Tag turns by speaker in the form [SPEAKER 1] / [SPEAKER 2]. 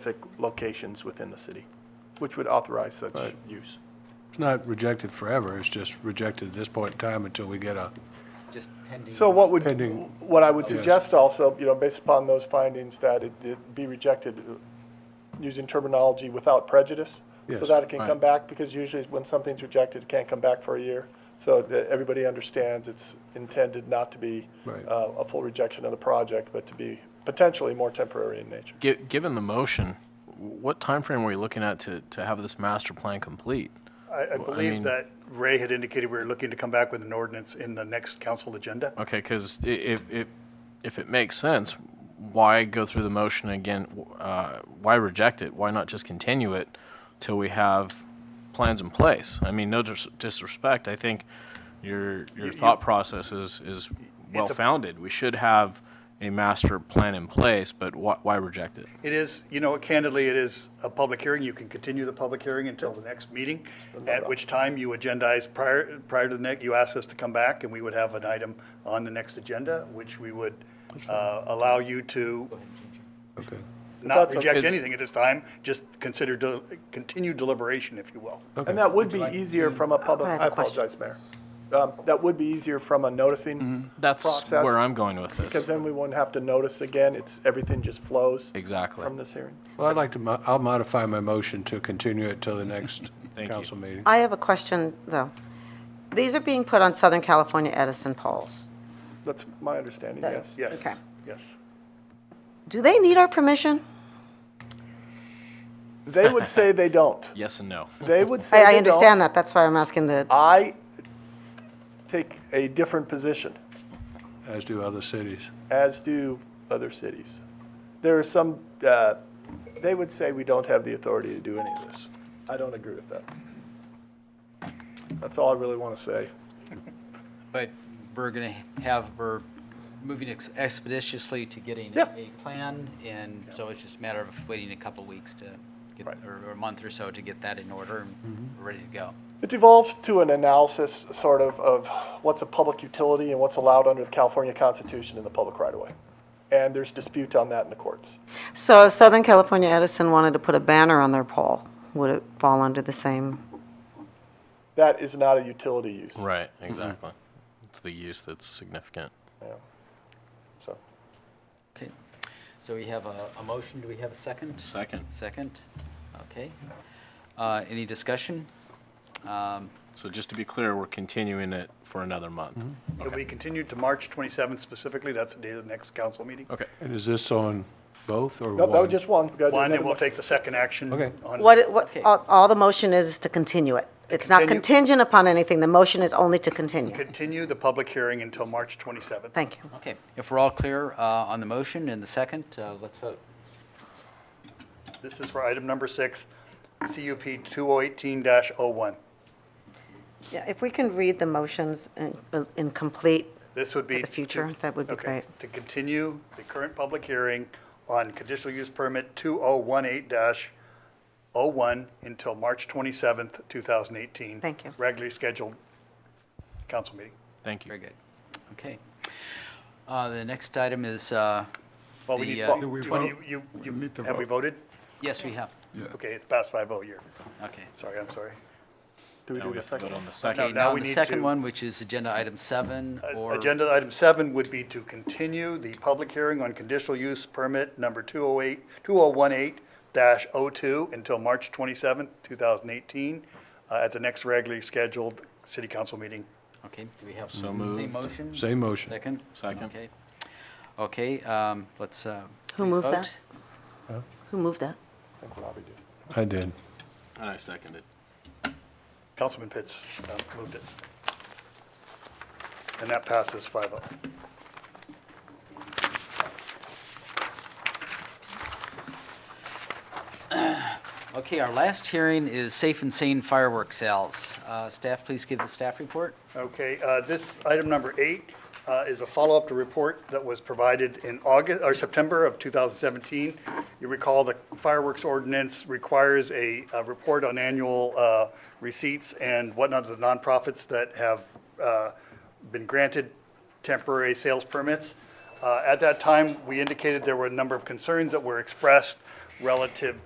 [SPEAKER 1] specific locations within the city, which would authorize such
[SPEAKER 2] Right.
[SPEAKER 1] use.
[SPEAKER 2] It's not rejected forever, it's just rejected at this point in time until we get a,
[SPEAKER 3] just pending.
[SPEAKER 1] So what would,
[SPEAKER 2] Pending.
[SPEAKER 1] what I would
[SPEAKER 2] Yes.
[SPEAKER 1] suggest also, you know, based upon those findings, that it- it be rejected uh, using terminology without prejudice, so
[SPEAKER 2] Yes,
[SPEAKER 1] that it can
[SPEAKER 2] right.
[SPEAKER 1] come back, because usually when something's rejected, it can't come back for a year. So that everybody understands it's intended not to be
[SPEAKER 2] Right.
[SPEAKER 1] uh, a full rejection of the project, but to be potentially more temporary in nature.
[SPEAKER 4] Gi- Given the motion, what timeframe were you looking at to, to have this master plan complete?
[SPEAKER 5] I, I
[SPEAKER 4] mean-
[SPEAKER 5] believe that Ray had indicated we were looking to come back with an ordinance in the next council agenda.
[SPEAKER 4] Okay, because if, if, if it makes sense, why go through the motion again? Uh, why reject it? Why not just continue it till we have plans in place? I mean, no dis- disrespect, I think your, your thought process is, is well-founded. We should have a master plan in place, but why, why reject it?
[SPEAKER 5] It is, you know, candidly, it is a public hearing. You can continue the public hearing until the next meeting, at which time you agendize prior, prior to the next, you ask us to come back, and we would have an item on the next agenda, which we would uh, allow you to
[SPEAKER 2] okay,
[SPEAKER 5] not
[SPEAKER 1] That's okay.
[SPEAKER 5] reject anything at this time, just consider, del- continued deliberation, if you will.
[SPEAKER 1] And that would be easier from a public,
[SPEAKER 6] I have
[SPEAKER 1] I
[SPEAKER 6] a question.
[SPEAKER 1] apologize, Mayor. Um, That would be easier from a noticing
[SPEAKER 4] Mm-hmm. That's
[SPEAKER 1] process.
[SPEAKER 4] where I'm going with
[SPEAKER 1] Because
[SPEAKER 4] this.
[SPEAKER 1] then we wouldn't have to notice again, it's, everything just flows.
[SPEAKER 4] Exactly.
[SPEAKER 1] From this hearing.
[SPEAKER 2] Well, I'd like to, mo- I'll modify my motion to continue it till the next
[SPEAKER 4] Thank you.
[SPEAKER 2] council meeting.
[SPEAKER 6] I have a question, though. These are being put on Southern California Edison poles.
[SPEAKER 1] That's my understanding, yes.
[SPEAKER 5] Yes.
[SPEAKER 6] Okay.
[SPEAKER 5] Yes.
[SPEAKER 6] Do they need our permission?
[SPEAKER 1] They would say they don't.
[SPEAKER 4] Yes and no.
[SPEAKER 1] They would say
[SPEAKER 6] I,
[SPEAKER 1] they
[SPEAKER 6] I
[SPEAKER 1] don't.
[SPEAKER 6] understand that, that's why I'm asking the,
[SPEAKER 1] I take a different position,
[SPEAKER 2] As do other cities.
[SPEAKER 1] as do other cities. There are some, uh, they would say we don't have the authority to do any of this. I don't agree with that. That's all I really want to say.
[SPEAKER 3] But we're going to have, we're moving ex- expeditiously to getting
[SPEAKER 1] Yeah.
[SPEAKER 3] a plan, and so it's just a matter of waiting a couple of weeks to, get
[SPEAKER 1] Right. Mm-hmm.
[SPEAKER 3] or or a month or so to get that in order and we're ready to go.
[SPEAKER 1] It devolves to an analysis, sort of, of what's a public utility and what's allowed under the California Constitution in the public right-of-way. And there's dispute on that in the courts.
[SPEAKER 6] so if Southern California Edison wanted to put a banner on their pole, would it fall under the same?
[SPEAKER 1] That is not a utility use.
[SPEAKER 4] Right, exactly. It's the use that's significant.
[SPEAKER 1] Yeah. So,
[SPEAKER 3] Okay, so we have a, a motion, do we have a second?
[SPEAKER 4] Second.
[SPEAKER 3] Second, okay. Uh, Any discussion? Um,
[SPEAKER 4] So just to be clear, we're continuing it for another month.
[SPEAKER 5] Mm-hmm. It'll be continued to March 27th specifically. That's the day of the next council meeting.
[SPEAKER 4] Okay.
[SPEAKER 2] And is this on both or one?
[SPEAKER 1] no, that was just one. We gotta do
[SPEAKER 5] One,
[SPEAKER 1] another
[SPEAKER 5] and we'll
[SPEAKER 1] one.
[SPEAKER 5] take the second action.
[SPEAKER 2] Okay.
[SPEAKER 5] on-
[SPEAKER 6] What, it- what,
[SPEAKER 3] Okay.
[SPEAKER 6] all, all the motion is is to continue it. It's not
[SPEAKER 5] Continue.
[SPEAKER 6] contingent upon anything, the motion is only to continue.
[SPEAKER 5] Continue the public hearing until March 27th.
[SPEAKER 6] Thank you.
[SPEAKER 3] Okay, if we're all clear uh, on the motion and the second, uh, let's vote.
[SPEAKER 5] This is for item number six, CUP 2018-01.
[SPEAKER 6] Yeah, if we can read the motions in, in complete,
[SPEAKER 5] This would be.
[SPEAKER 6] For the future,
[SPEAKER 5] to-
[SPEAKER 6] that would be
[SPEAKER 5] okay,
[SPEAKER 6] great.
[SPEAKER 5] To continue the current public hearing on conditional use permit 2018-01 until March 27th, 2018.
[SPEAKER 6] Thank you.
[SPEAKER 5] Regularly scheduled council meeting.
[SPEAKER 4] Thank
[SPEAKER 3] Very
[SPEAKER 4] you.
[SPEAKER 3] good. Okay. Uh, The next item is, uh,
[SPEAKER 5] Well, we
[SPEAKER 3] The,
[SPEAKER 5] need,
[SPEAKER 3] uh,
[SPEAKER 5] well,
[SPEAKER 3] Do
[SPEAKER 7] we
[SPEAKER 5] you-
[SPEAKER 7] vote?
[SPEAKER 5] you- you-
[SPEAKER 7] We
[SPEAKER 5] you-
[SPEAKER 7] need to
[SPEAKER 5] have we
[SPEAKER 7] vote.
[SPEAKER 5] voted?
[SPEAKER 3] yes, we have,
[SPEAKER 5] Okay, it's past 5:00 here.
[SPEAKER 3] okay.
[SPEAKER 5] Sorry, I'm sorry.
[SPEAKER 1] Do we
[SPEAKER 4] Now
[SPEAKER 1] do
[SPEAKER 4] we
[SPEAKER 1] the
[SPEAKER 4] have to
[SPEAKER 1] second?
[SPEAKER 4] vote on the
[SPEAKER 3] Okay,
[SPEAKER 4] second.
[SPEAKER 5] now
[SPEAKER 3] now
[SPEAKER 5] we
[SPEAKER 3] the
[SPEAKER 5] need
[SPEAKER 3] second
[SPEAKER 5] to-
[SPEAKER 3] one, which is agenda item seven,
[SPEAKER 5] Uh,
[SPEAKER 3] or,
[SPEAKER 5] Agenda item seven would be to continue the public hearing on conditional use permit number 208, 2018-02 until March 27, 2018, uh, at the next regularly scheduled city council meeting.
[SPEAKER 3] okay, do we have
[SPEAKER 4] So
[SPEAKER 3] same
[SPEAKER 4] moved.
[SPEAKER 3] motion?
[SPEAKER 2] Same motion.
[SPEAKER 3] Second?
[SPEAKER 4] Second.
[SPEAKER 3] Okay. Okay, um, let's, uh.
[SPEAKER 6] Who
[SPEAKER 3] please
[SPEAKER 6] moved
[SPEAKER 3] vote.
[SPEAKER 6] that? Who moved that?
[SPEAKER 2] I did.
[SPEAKER 4] And I seconded.
[SPEAKER 5] Councilman Pitts uh, moved it. And that passes oh. 5-0.
[SPEAKER 3] Okay, our last hearing is safe and sane fireworks sales. Uh, staff, please give the staff report.
[SPEAKER 5] Okay, uh, this, item number eight, uh, is a follow-up to report that was provided in August, or September of 2017. You recall the fireworks ordinance requires a, a report on annual uh, receipts and whatnot to the nonprofits that have uh, been granted temporary sales permits. Uh, At that time, we indicated there were a number of concerns that were expressed relative